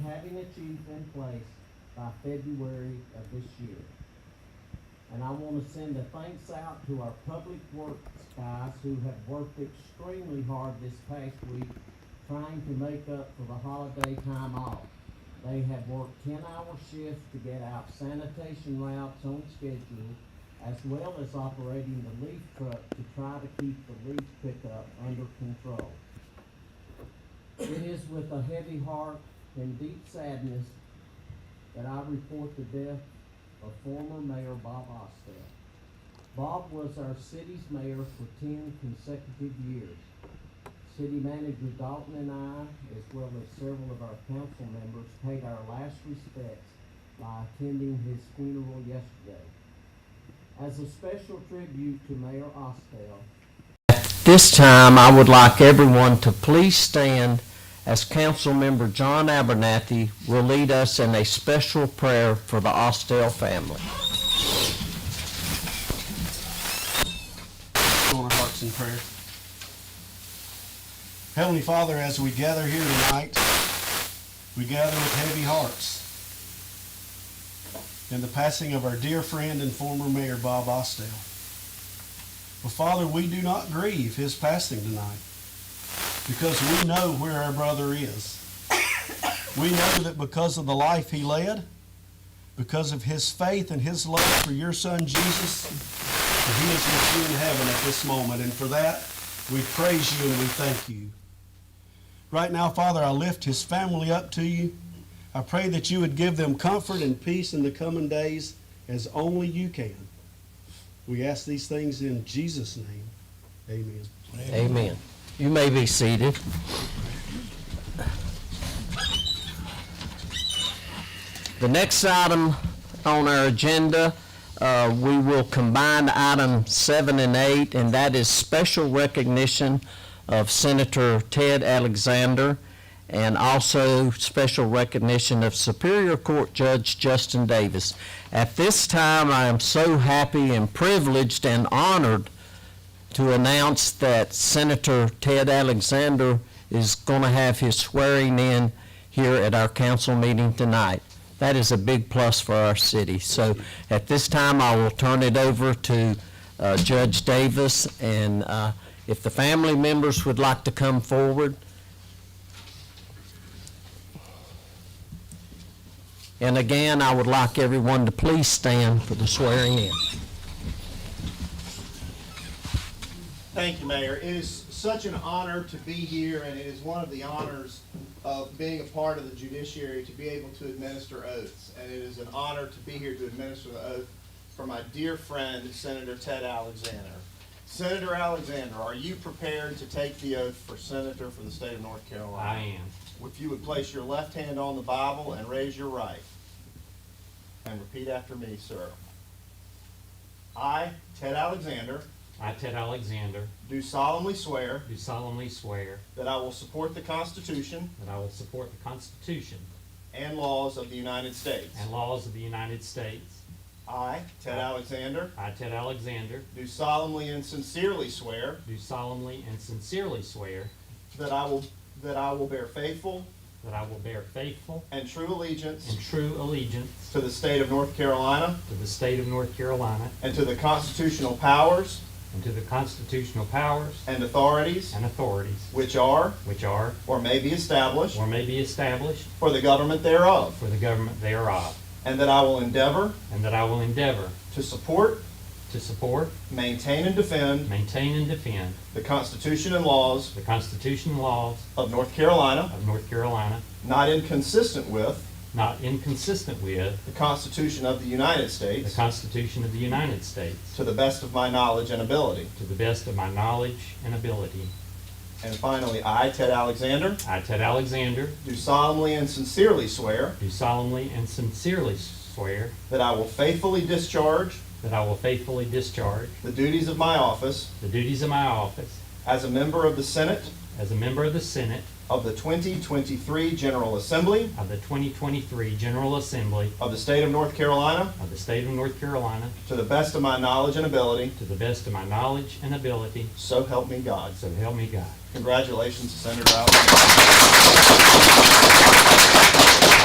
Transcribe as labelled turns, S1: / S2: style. S1: issues in place by February of this year. And I wanna send a thanks out to our public works guys who have worked extremely hard this past week trying to make up for the holiday time off. They have worked ten-hour shifts to get out sanitation routes on schedule, as well as operating the leaf truck to try to keep the leaf pickup under control. It is with a heavy heart and deep sadness that I report the death of former Mayor Bob Ostel. Bob was our city's mayor for ten consecutive years. City Manager Dalton and I, as well as several of our council members, paid our last respects by attending his funeral yesterday. As a special tribute to Mayor Ostel, this time, I would like everyone to please stand as Councilmember John Abernathy will lead us in a special prayer for the Austell family.
S2: on our hearts in prayer. Heavenly Father, as we gather here tonight, we gather with heavy hearts in the passing of our dear friend and former Mayor Bob Ostel. But Father, we do not grieve his passing tonight because we know where our brother is. We know that because of the life he led, because of his faith and his love for your son Jesus, for he is with you in heaven at this moment. And for that, we praise you and we thank you. Right now, Father, I lift his family up to you. I pray that you would give them comfort and peace in the coming days as only you can. We ask these things in Jesus' name. Amen.
S1: Amen. You may be seated. The next item on our agenda, uh, we will combine item seven and eight, and that is special recognition of Senator Ted Alexander and also special recognition of Superior Court Judge Justin Davis. At this time, I am so happy and privileged and honored to announce that Senator Ted Alexander is going to have his swearing in here at our council meeting tonight. That is a big plus for our city. So at this time, I will turn it over to uh, Judge Davis, and uh, if the family members would like to come forward. And again, I would like everyone to please stand for the swearing in.
S3: Thank you, Mayor. It is such an honor to be here, and it is one of the honors of being a part of the judiciary to be able to administer oaths. And it is an honor to be here to administer the oath for my dear friend Senator Ted Alexander. Senator Alexander, are you prepared to take the oath for Senator for the state of North
S4: I
S3: Carolina?
S4: am.
S3: If you would place your left hand on the Bible and raise your right, and repeat after me, sir. I, Ted Alexander,
S4: I, Ted Alexander,
S3: do solemnly swear.
S4: do solemnly swear
S3: That I will support the Constitution
S4: that I will support the Constitution
S3: and laws of the United States.
S4: and laws of the United States.
S3: I, Ted Alexander,
S4: I, Ted Alexander,
S3: do solemnly and sincerely swear
S4: do solemnly and sincerely swear
S3: that I will, that I will bear faithful
S4: that I will bear faithful
S3: and true allegiance
S4: and true allegiance
S3: to the state of North Carolina
S4: to the state of North Carolina
S3: and to the constitutional powers
S4: and to the constitutional powers
S3: and authorities
S4: and authorities
S3: which are
S4: which are
S3: or may be established
S4: or may be established
S3: for the government thereof,
S4: for the government thereof,
S3: and that I will endeavor
S4: and that I will endeavor
S3: to support,
S4: to support,
S3: maintain, and defend
S4: maintain, and defend
S3: the Constitution and laws
S4: the Constitution and laws
S3: of North Carolina,
S4: of North Carolina,
S3: not inconsistent with
S4: not inconsistent with
S3: The Constitution of the United
S4: The
S3: States.
S4: Constitution of the United States,
S3: To the best of my knowledge and ability.
S4: to the best of my knowledge and ability.
S3: And finally, I, Ted Alexander,
S4: I, Ted Alexander,
S3: do solemnly and sincerely swear
S4: do solemnly and sincerely swear
S3: that I will faithfully discharge
S4: that I will faithfully discharge
S3: the duties of my office
S4: the duties of my office
S3: as a member of the Senate
S4: as a member of the Senate
S3: of the 2023 General Assembly
S4: of the 2023 General Assembly
S3: of the State of North Carolina
S4: of the State of North Carolina,
S3: to the best of my knowledge and ability.
S4: to the best of my knowledge and ability,
S3: So help me God.
S4: so help me God.
S3: Congratulations, Senator Alexander.